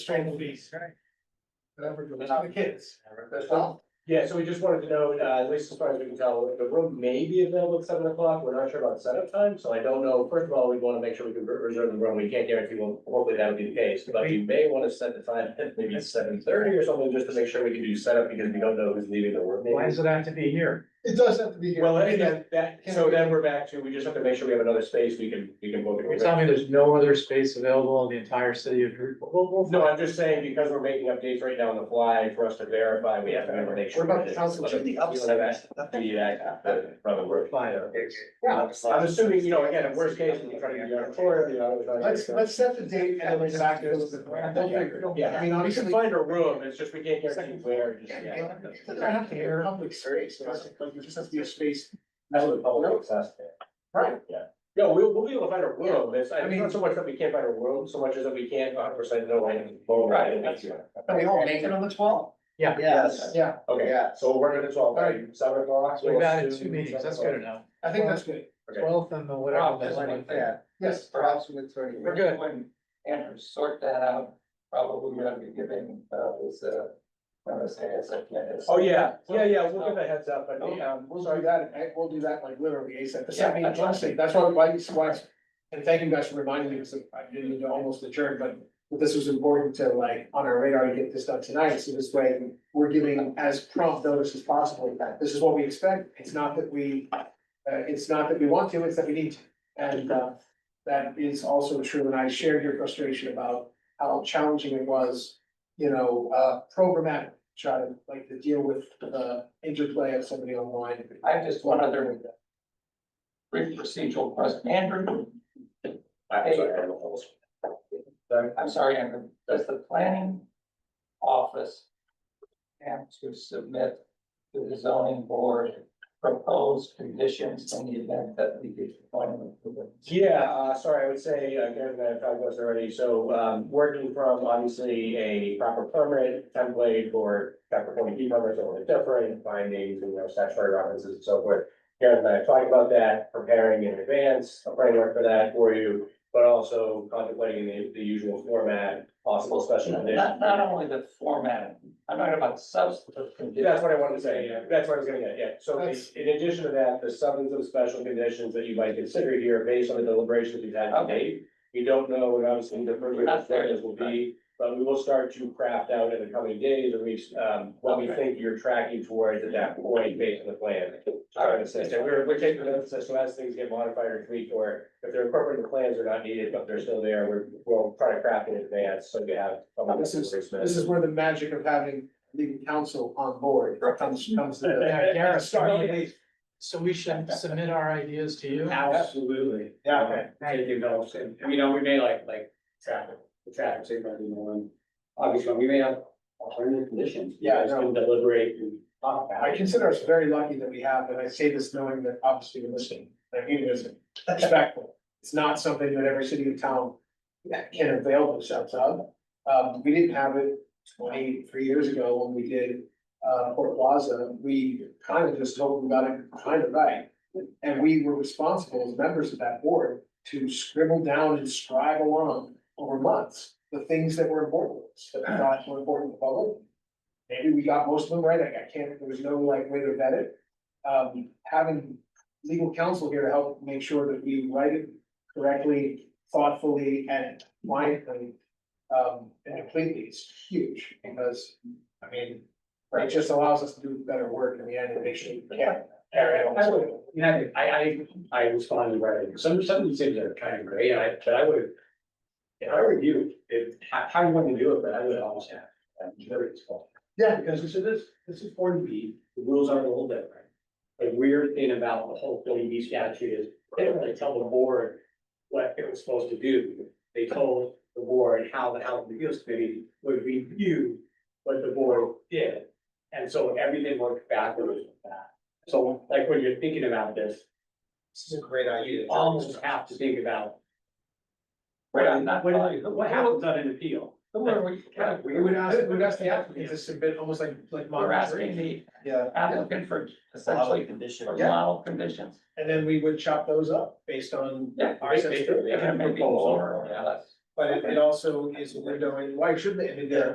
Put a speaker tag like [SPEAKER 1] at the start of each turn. [SPEAKER 1] Strangle bees.
[SPEAKER 2] Whatever,
[SPEAKER 1] For the kids.
[SPEAKER 2] That's all.
[SPEAKER 1] Yeah, so we just wanted to know, uh, at least as far as we can tell, the room may be available at seven o'clock. We're not sure about setup time, so I don't know. First of all, we want to make sure we can re- reserve the room. We can't guarantee, well, hopefully that would be the case, but you may want to set the time, at maybe seven thirty or something, just to make sure we can do setup because we don't know who's leaving the room.
[SPEAKER 3] Why does it have to be here?
[SPEAKER 2] It does have to be here.
[SPEAKER 1] Well, I think that, that,
[SPEAKER 2] Can
[SPEAKER 1] so
[SPEAKER 2] we-
[SPEAKER 1] then we're back to, we just have to make sure we have another space we can, we can book
[SPEAKER 3] You're
[SPEAKER 1] it.
[SPEAKER 3] telling me there's no other space available in the entire city of Shreveport? We'll- we'll
[SPEAKER 1] No,
[SPEAKER 3] find-
[SPEAKER 1] I'm just saying, because we're making updates right now on the fly, for us to verify, we have to make sure.
[SPEAKER 2] What about
[SPEAKER 1] that it's-
[SPEAKER 2] council, should the upset?
[SPEAKER 1] You have to be that- that- from the
[SPEAKER 3] We'll
[SPEAKER 1] word.
[SPEAKER 3] find out.
[SPEAKER 2] Yeah,
[SPEAKER 1] I'm assuming, you know, again, in worst case, we try to be auditorium, you know. try to-
[SPEAKER 2] let's, let's set the date and then we're back to this. Don't figure it out.
[SPEAKER 1] Yeah,
[SPEAKER 2] I mean,
[SPEAKER 1] we can
[SPEAKER 2] honestly.
[SPEAKER 1] find a room, it's just we can't guarantee where, just, yeah.
[SPEAKER 2] It doesn't have to be a public space, it doesn't- like, it just has to be a space.
[SPEAKER 1] That's what public access there.
[SPEAKER 2] Right.
[SPEAKER 1] Yeah, we'll, we'll be able to find a room, it's,
[SPEAKER 2] I
[SPEAKER 1] it's
[SPEAKER 2] mean-
[SPEAKER 1] not so much that we can't find a room, so much as that we can't hundred percent know. when-
[SPEAKER 4] Right, that's
[SPEAKER 2] Can we all make it on the twelfth?
[SPEAKER 4] Yes.
[SPEAKER 2] Yeah,
[SPEAKER 1] Okay,
[SPEAKER 4] Yeah.
[SPEAKER 1] so we're working at twelve, right, seven o'clock.
[SPEAKER 3] So We've
[SPEAKER 1] we'll
[SPEAKER 3] added
[SPEAKER 1] assume
[SPEAKER 3] two meetings, that's good enough.
[SPEAKER 2] I think that's good.
[SPEAKER 1] Okay.
[SPEAKER 3] Twelfth and the whatever. that's one thing.
[SPEAKER 4] Yeah,
[SPEAKER 2] Yes.
[SPEAKER 4] perhaps with thirty.
[SPEAKER 3] We're good.
[SPEAKER 4] When Andrew sort that out, probably we're gonna be giving, uh, this, uh, I'm gonna say it's like, yeah, it's-
[SPEAKER 1] Oh, yeah, yeah, yeah, we'll give a heads up, but
[SPEAKER 2] Oh,
[SPEAKER 1] um,
[SPEAKER 2] We'll do that, and we'll do that like literally ASAP,
[SPEAKER 4] Yeah,
[SPEAKER 2] I mean, honestly, that's why, why, why, and thank you guys for reminding me, because I didn't need to almost adjourn, but this was important to like, on our radar, to get this done tonight, so this way, we're giving as prompt notice as possible, that this is what we expect, it's not that we, uh, it's not that we want to, it's that we need to. And, uh, that is also true, and I shared your frustration about how challenging it was, you know, uh, programmatic, trying to like to deal with the interplay of somebody online.
[SPEAKER 4] I have just one other brief procedural question. Andrew,
[SPEAKER 1] I'm sorry, I'm almost-
[SPEAKER 4] I'm sorry, Andrew, does the planning office have to submit to the zoning board proposed conditions in the event that we get appointment?
[SPEAKER 1] Yeah, uh, sorry, I would say, uh, given that I've talked about this already, so, um, working from obviously a proper permit template or proper forty B permits or different findings, you know, statutory references and so forth. Karen and I have talked about that, preparing in advance, a framework for that for you, but also contemplating the, the usual format, possible special
[SPEAKER 4] Not,
[SPEAKER 1] conditions.
[SPEAKER 4] not only the formatting, I'm talking about substantive
[SPEAKER 1] Yeah, That's
[SPEAKER 4] conditions.
[SPEAKER 1] what I wanted to say, yeah, that's what I was gonna get, yeah, so in
[SPEAKER 2] That's-
[SPEAKER 1] in addition to that, the substantive special conditions that you might consider here based on the deliberations we've had to
[SPEAKER 4] Okay.
[SPEAKER 1] date. You don't know what obviously the further
[SPEAKER 4] That's fair.
[SPEAKER 1] this will be, but we will start to craft out in the coming days or weeks, um, what we
[SPEAKER 4] Okay.
[SPEAKER 1] think you're tracking towards at that point based on the plan. Sorry to say, so we're, we're taking the emphasis, so as things get modified or tweaked, or if they're incorporated, the plans are not needed, but they're still there, we're, we'll try to craft it in advance, so we have. some
[SPEAKER 2] This is-
[SPEAKER 1] replacement.
[SPEAKER 2] This is where the magic of having legal counsel on board comes, comes to the.
[SPEAKER 3] Yeah, Gareth,
[SPEAKER 2] Start
[SPEAKER 3] so
[SPEAKER 2] with
[SPEAKER 3] we- So we should submit our ideas to you?
[SPEAKER 5] Absolutely.
[SPEAKER 1] Yeah, okay.
[SPEAKER 5] Okay, thank you, Bill. And, You know, we may like, like traffic, the traffic safety, you know, and obviously, we may have alternative conditions. You
[SPEAKER 2] Yeah, I
[SPEAKER 5] guys
[SPEAKER 2] know.
[SPEAKER 5] can deliberate and talk about
[SPEAKER 2] I
[SPEAKER 5] it.
[SPEAKER 2] consider us very lucky that we have, and I say this knowing that obviously you're listening, I mean, it's respectful. It's not something that every city and town can avail themselves of. Um, we didn't have it twenty-three years ago when we did, uh, Port Plaza, we kind of just told them about it kind of right. And we were responsible as members of that board to scribble down and scribe along over months, the things that were important, to us, that we thought were important to the public. Maybe we got most of them right, like, I can't, there was no like way to vet it. Um, having legal counsel here to help make sure that we write it correctly, thoughtfully and mindfully. Um, and completely is huge because, I mean, it just allows us to do better work in the end and make sure we can. carry it on.
[SPEAKER 5] I would, you know, I, I, I respond to writing, some, some of these things are kind of gray, and I, but I would. If I were you, if, how, how you want to do it, but I would almost have, I'm sure it's fault.
[SPEAKER 2] Yeah.
[SPEAKER 5] Because we said this, this is forty B, the rules are a little different. The weird thing about the whole forty B statute is, they didn't really tell the board what it was supposed to do. They told the board how the House Appeals Committee would review what the board did. And so everything worked backwards with that. So like when you're thinking about this,
[SPEAKER 4] This is a great
[SPEAKER 5] you almost have to think about.
[SPEAKER 4] Wait, I'm not
[SPEAKER 5] What,
[SPEAKER 4] following.
[SPEAKER 5] what happens on an appeal?
[SPEAKER 4] Who are we?
[SPEAKER 2] We would ask, we would ask the applicant to submit almost like, like.
[SPEAKER 4] We're asking the
[SPEAKER 2] Yeah.
[SPEAKER 4] applicant for essentially for
[SPEAKER 2] Yeah.
[SPEAKER 4] model conditions.
[SPEAKER 2] And then we would chop those up based on.
[SPEAKER 4] Yeah.
[SPEAKER 2] Our sense of-
[SPEAKER 4] Maybe more, yeah, that's
[SPEAKER 2] But it, it also is windowing, why shouldn't it be there?